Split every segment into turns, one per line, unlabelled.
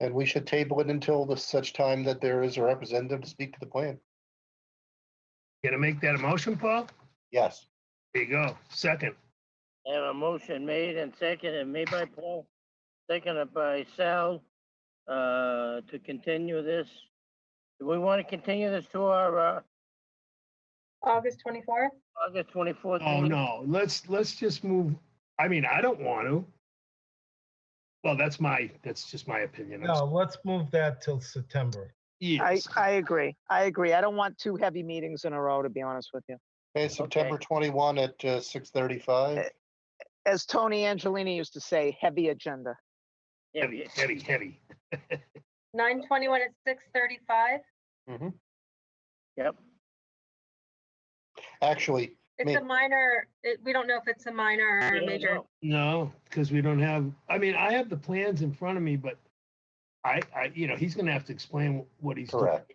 And we should table it until the such time that there is a representative to speak to the plan.
Gonna make that a motion, Paul?
Yes.
There you go. Second.
I have a motion made and seconded, made by Paul, seconded by Sal, uh, to continue this. Do we want to continue this to our, uh,
August 24th?
August twenty-fourth?
Oh, no, let's, let's just move, I mean, I don't want to. Well, that's my, that's just my opinion. I'm
No, let's move that till September.
I,
Yes,
I agree. I agree. I don't want two heavy meetings in a row, to be honest with you.
Okay, September twenty-one at uh, six thirty-five.
As Tony Angelini used to say, heavy agenda.
heavy, heavy, heavy.
9:21 at 6:35.
Yep,
Actually,
It's
Me-
a minor, it- we don't know if it's a minor or
We
a
don't
major.
know.
No, because we don't have, I mean, I have the plans in front of me, but I, I, you know, he's gonna have to explain what he's doing.
correct.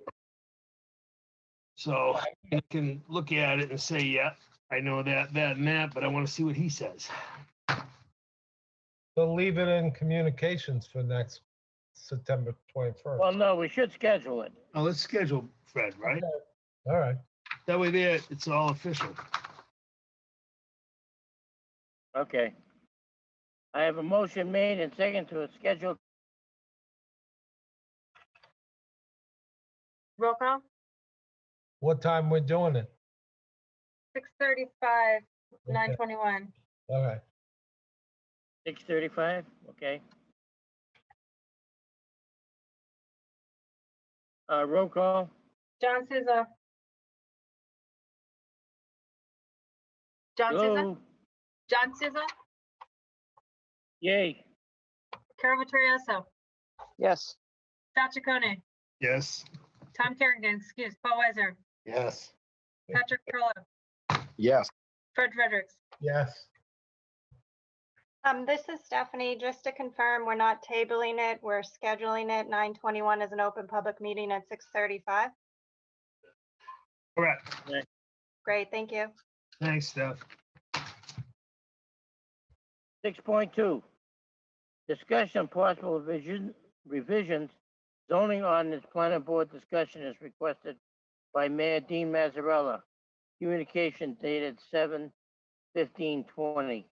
So I can look at it and say, yeah, I know that, that and that, but I want to see what he says.
We'll leave it in communications for next September
well,
21st.
no, we should schedule it.
Now, let's schedule Fred, right?
All right.
That way there, it's all official.
Okay. I have a motion made and seconded to schedule,
Roll call,
What time we're doing it?
6:35,
Okay,
9:21.
All right.
six thirty-five, okay? Uh, roll call,
John Souza. John Souza,
hello,
John Souza,
yay,
Carol Vittorioso,
Yes.
Sal Chaconi,
Yes.
Tom Kerrigan, excuse, Paul Weiser,
Yes.
Patrick Perla,
Yes,
Fred Fredericks.
Yes.
Um, this is Stephanie. Just to confirm, we're not tabling it. We're scheduling it. Nine twenty-one is an open public meeting at six thirty-five.
All right.
Great, thank you.
Thanks, Steph.
six point two. Discussion and possible revision, revisions, zoning ordinance planning board discussion is requested by Mayor Dean Mazzarella. Communication dated seven fifteen twenty.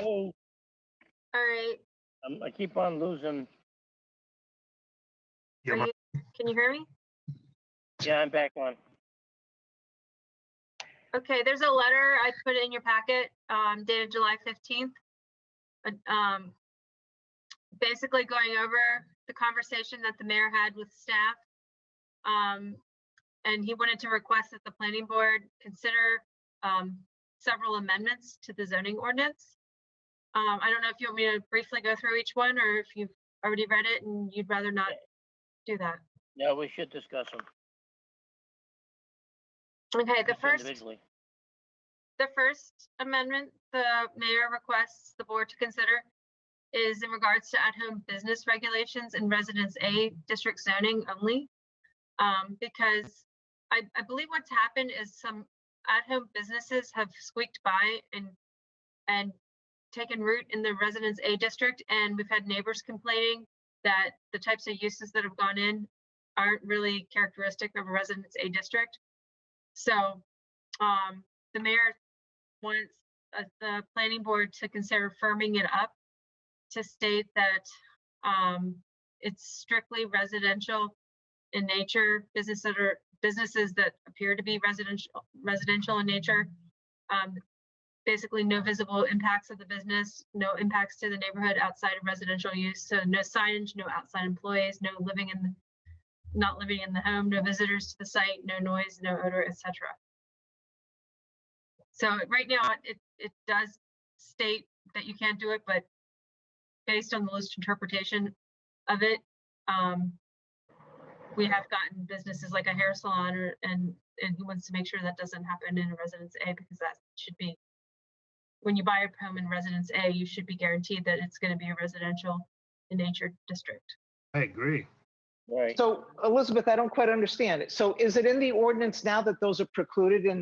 Oh.
All right,
Um, I keep on losing.
Yeah,
are
my-
you- can you hear me?
Yeah, I'm back on.
Okay, there's a letter I put in your packet um, dated July 15th. uh, um, Basically going over the conversation that the mayor had with staff. um, And he wanted to request that the planning board consider um, several amendments to the zoning ordinance. Um, I don't know if you want me to briefly go through each one or if you've already read it and you'd rather not do that.
No, we should discuss them.
Okay, the
each
first.
individually.
The first amendment the mayor requests the board to consider is in regards to at-home business regulations in Residence A district zoning only. Um, because I, I believe what's happened is some at-home businesses have squeaked by and, and taken root in the Residence A district, and we've had neighbors complaining that the types of uses that have gone in aren't really characteristic of a Residence A district. So, um, the mayor wants uh, the planning board to consider firming it up to state that um, it's strictly residential in nature, businesses that are, businesses that appear to be residential, residential in nature. um, Basically, no visible impacts of the business, no impacts to the neighborhood outside of residential use. So no signage, no outside employees, no living in, the not living in the home, no visitors to the site, no noise, no odor, etc. So right now, it, it does state that you can't do it, but based on the list interpretation of it, um, we have gotten businesses like a hair salon or, and, and he wants to make sure that doesn't happen in Residence A because that should be, when you buy a home in Residence A, you should be guaranteed that it's gonna be a residential in nature district.
I agree.
Right.
So Elizabeth, I don't quite understand it. So is it in the ordinance now that those are precluded in